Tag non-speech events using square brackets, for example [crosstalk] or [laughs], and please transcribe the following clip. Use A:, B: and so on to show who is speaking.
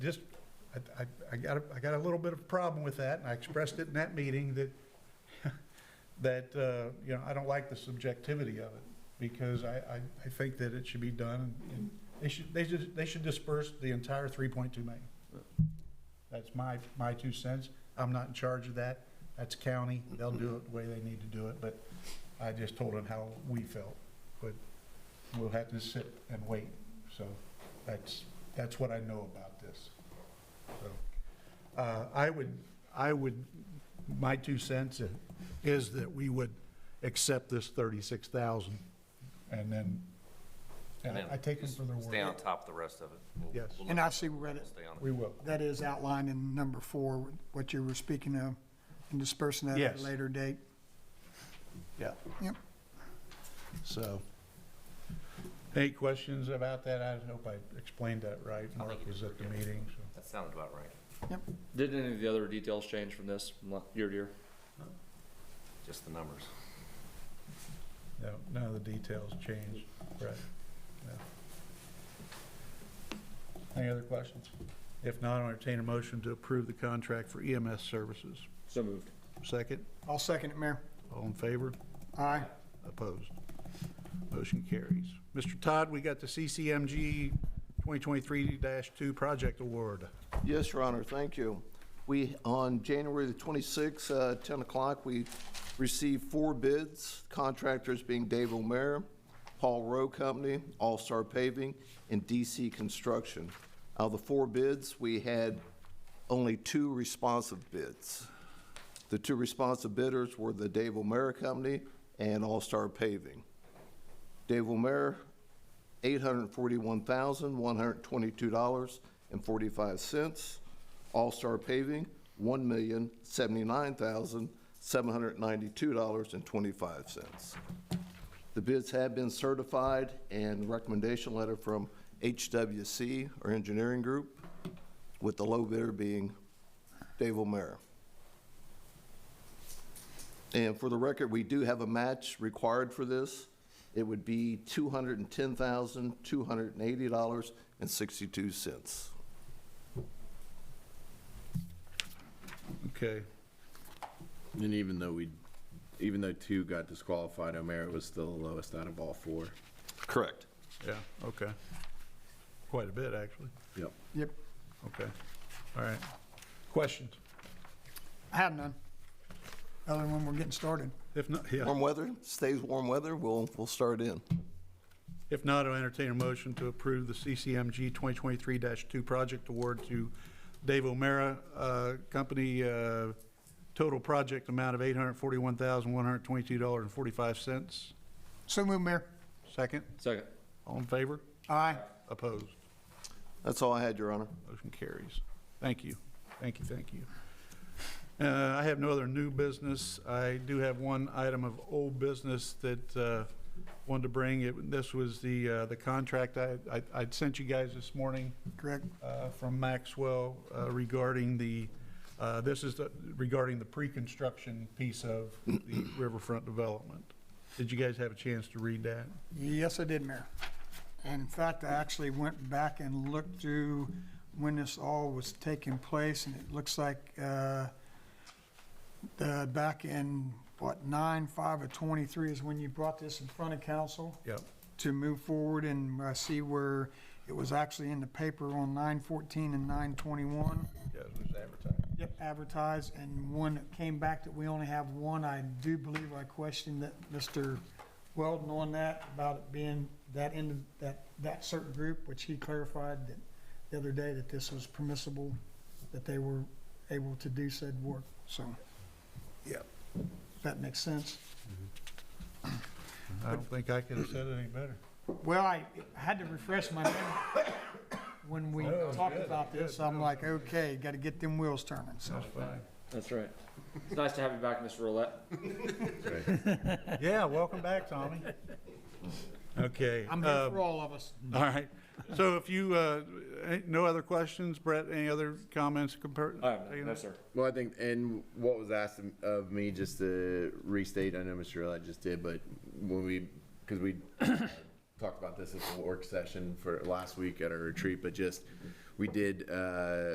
A: just, I, I, I got, a- I got a little bit of a problem with that, and I expressed it in that meeting that, [laughs] that, uh, you know, I don't like the subjectivity of it, because I, I, I think that it should be done, and they should, they should, they should disperse the entire three point two million. That's my, my two cents. I'm not in charge of that. That's county. They'll do it the way they need to do it, but I just told them how we felt. But we'll have to sit and wait. So that's, that's what I know about this. So, uh, I would, I would, my two cents is that we would accept this thirty-six thousand and then, and I I take them for their
B: Stay on
A: word.
B: top of the rest of it. We'll-
A: Yes.
B: we'll
C: And I
B: look-
C: see where
B: we'll
C: it,
B: Stay on it.
A: We will.
C: that is outlined in number four, what you were speaking of, and dispersing that at
A: Yes.
C: a later date.
A: Yeah.
C: Yep.
A: So, any questions about that? I hope I explained that right. Mark was at the meeting, so.
B: That sounded about right.
D: Did any of the other details change from this from la- year to year?
B: Just the numbers.
A: No, none of the details changed, right? No. Any other questions? If not, I'll entertain a motion to approve the contract for EMS services.
D: So moved.
A: Second,
C: I'll second it, Mayor.
A: all in favor?
C: Aye.
A: Opposed? Motion carries. Mr. Todd, we got the CCMG 2023-2 project award.
E: Yes, Your Honor, thank you. We, on January the 26th, uh, 10 o'clock, we received four bids, contractors being Dave O'Meara, Paul Rowe Company, All Star Paving, and DC Construction. Out of the four bids, we had only two responsive bids. The two responsive bidders were the Dave O'Meara Company and All Star Paving. Dave O'Meara, $841,122.45. All-Star Paving, $1,079,792.25. The bids have been certified and recommendation letter from HWC, or engineering group, with the low bidder being Dave O'Meara. And for the record, we do have a match required for this. It would be two hundred and ten thousand, two hundred and eighty dollars and sixty-two cents.
A: Okay.
F: And even though we, even though two got disqualified, O'Meara was still the lowest out of all four.
E: Correct.
A: Yeah, okay. Quite a bit, actually.
F: Yep.
C: Yep.
A: Okay, all right. Questions?
C: I have none. Other than when we're getting started.
A: If not, yeah,
E: Warm weather, stays warm weather, we'll, we'll start in.
A: if not, I'll entertain a motion to approve the CCMG 2023-2 project award to Dave O'Meara uh, Company, uh, total project amount of $841,122.45.
C: So move, Mayor.
A: Second,
D: Second.
A: all in favor?
C: Aye.
A: Opposed?
E: That's all I had, Your Honor.
A: Motion carries. Thank you. Thank you, thank you. Uh, I have no other new business. I do have one item of old business that uh, wanted to bring. It- This was the, uh, the contract I, I- I'd sent you guys this morning
C: Correct.
A: uh, from Maxwell uh, regarding the, uh, this is the- regarding the pre-construction piece of the riverfront development. Did you guys have a chance to read that?
C: Yes, I did, Mayor. And in fact, I actually went back and looked through when this all was taking place, and it looks like, uh, the, back in, what, nine, five of twenty-three is when you brought this in front of council?
A: Yep.
C: to move forward, and I see where it was actually in the paper on nine fourteen and nine twenty-one.
A: Yes, it was advertised.
C: Yep. Advertised, and one that came back that we only have one, I do believe I questioned that Mr. Weldon on that, about it being that end, of that, that certain group, which he clarified that the other day that this was permissible, that they were able to do said work, so.
A: Yep.
C: That makes sense.
A: I don't think I could have said it any better.
C: Well, I had to refresh my memory. When we
A: No, it's
C: talked
A: good,
C: about
A: it's
C: this,
A: good.
C: I'm like, okay, got to get them wheels turning, so.
A: That's fine.
D: That's right. It's nice to have you back, Mr. Roulette.
A: Yeah, welcome back, Tommy. Okay.
C: I'm here
A: um,
C: for all of us.
A: All right. So if you, uh, ain't no other questions, Brett, any other comments? compar-
D: I have none.
A: taking
D: No,
A: it?
D: sir.
F: Well, I think, and what was asked of- of me, just to restate, I know Mr. Roulette just did, but when we, because we talked about this at the work session for last week at our retreat, but just we did, uh,